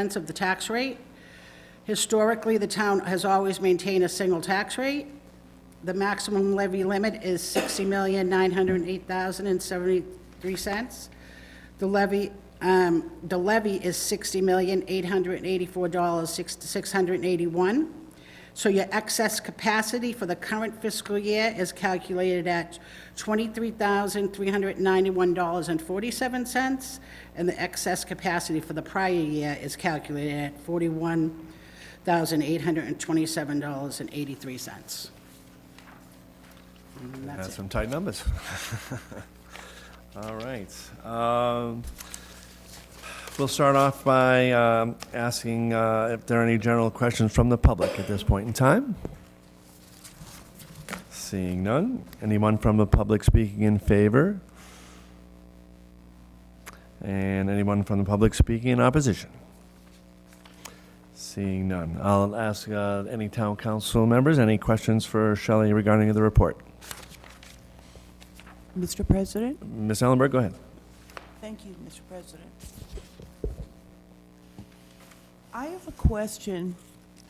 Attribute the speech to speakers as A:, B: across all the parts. A: cents of the tax rate. Historically, the town has always maintained a single tax rate. The maximum levy limit is $60,908,073. The levy, um, the levy is $60,884,681. So your excess capacity for the current fiscal year is calculated at $23,391.47, and the excess capacity for the prior year is calculated at $41,827.83. And that's
B: That's
A: it.
B: some tight numbers. All right. um, We'll start off by um, asking uh, if there are any general questions from the public at this point in time. Seeing none. Anyone from the public speaking in favor? And anyone from the public speaking in opposition? Seeing none. I'll ask uh, any town council members, any questions for Shelley regarding the report?
C: Mr. President?
B: Ms. Ellenberg, go ahead.
C: Thank you, Mr. President. I have a question,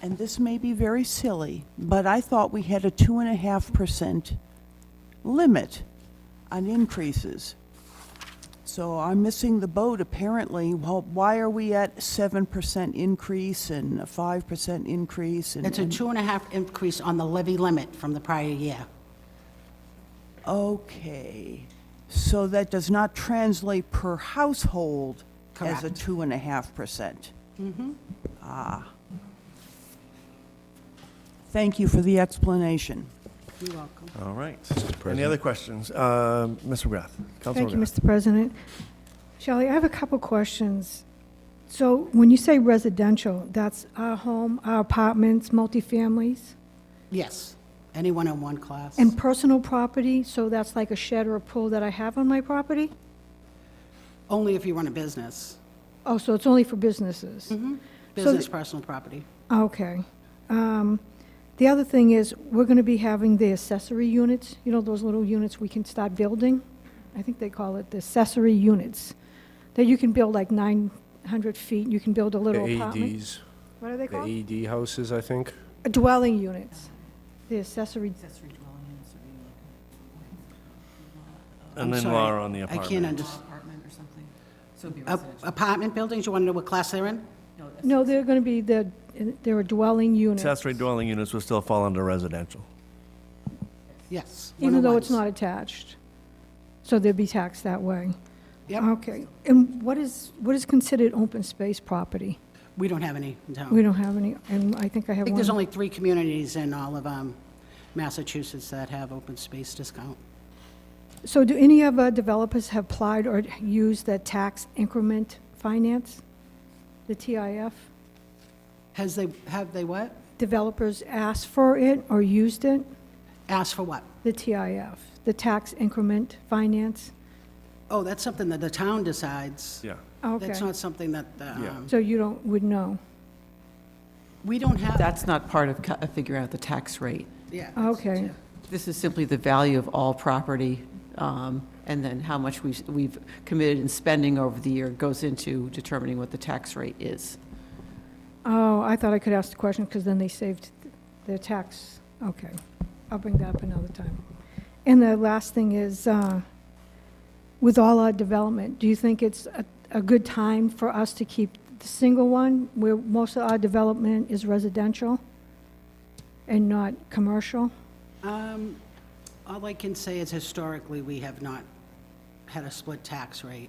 C: and this may be very silly, but I thought we had a two and a half percent limit on increases. So I'm missing the boat, apparently. Well, why are we at seven percent increase and a five percent increase? and-
A: It's a
C: and-
A: two and a half increase on the levy limit from the prior year.
C: Okay, so that does not translate per household as a
A: Correct.
C: two and a half percent? Mm-hmm. Ah. Thank you for the explanation.
A: You're welcome.
B: All right. Any other questions? Uh, Ms. McGrath?
D: Thank
B: Councilor
D: you,
B: McGrath.
D: Mr. President. Shelley, I have a couple questions. So when you say residential, that's our home, our apartments, multifamilies,
A: Yes, anyone in one class.
D: and personal property, so that's like a shed or a pool that I have on my property?
A: Only if you run a business,
D: Oh, so it's only for businesses?
A: business, personal property.
D: Okay. Um, The other thing is, we're going to be having the accessory units, you know, those little units we can start building? I think they call it the accessory units, that you can build like 900 feet, you can build a
E: The
D: little apartment.
E: AEDs,
D: What are they
E: the
D: called? Uh,
E: AED houses, I think.
D: Dwelling units, the accessory,
B: And then
A: sorry,
B: Laura on the
A: I
B: apartment.
A: can't understand.
F: apartment or something? So it'd be residential?
A: Apartment buildings, you want to know what class they're in?
F: No, that's-
D: no, they're going to be the, they're a dwelling unit.
B: Accessory dwelling units will still fall under residential.
A: Yes.
D: Even though it's
A: 101s.
D: not attached. So they'd be taxed that way.
A: Yep,
D: Okay, and what is, what is considered open space property?
A: we don't have any in town.
D: We don't have any, and I think I
A: I
D: have
A: think there's
D: one.
A: only three communities in all of um, Massachusetts that have open space discount.
D: So do any of our developers have applied or used that tax increment finance? The TIF?
A: Has they, have they what?
D: Developers asked for it or used it?
A: Asked for what?
D: The TIF, the tax increment finance?
A: Oh, that's something that the town decides.
B: Yeah.
D: Oh, Okay,
A: That's not something that, the,
B: Yeah.
A: um,
D: so you don't, would know?
A: we don't have,
F: That's not part of, cu- of figuring out the tax rate.
A: yeah.
D: Okay.
F: This is simply the value of all property, um, and then how much we've, we've committed in spending over the year goes into determining what the tax rate is.
D: Oh, I thought I could ask the question, because then they saved their tax. Okay, I'll bring that up another time. And the last thing is, uh, with all our development, do you think it's a, a good time for us to keep the single one, where most of our development is residential and not commercial?
A: Um, All I can say is historically, we have not had a split tax rate.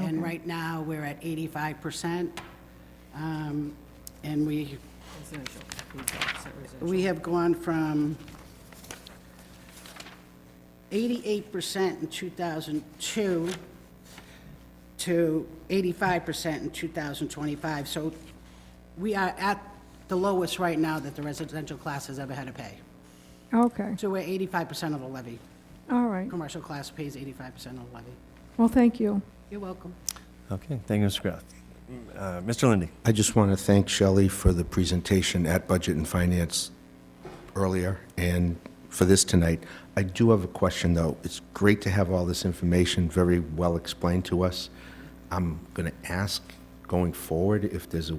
A: And right now, we're at 85%. um, And we, we have gone from 88% in 2002 to 85% in 2025. So we are at the lowest right now that the residential class has ever had to pay.
D: Okay,
A: So we're eighty-five percent of the levy.
D: all right.
A: Commercial class pays eighty-five percent of the levy.
D: Well, thank you.
A: You're welcome.
B: Okay, thank you, Mr. McGrath. Uh, Mr. Lindy.
G: I just want to thank Shelley for the presentation at Budget and Finance earlier and for this tonight. I do have a question, though. It's great to have all this information very well explained to us. I'm going to ask going forward if there's a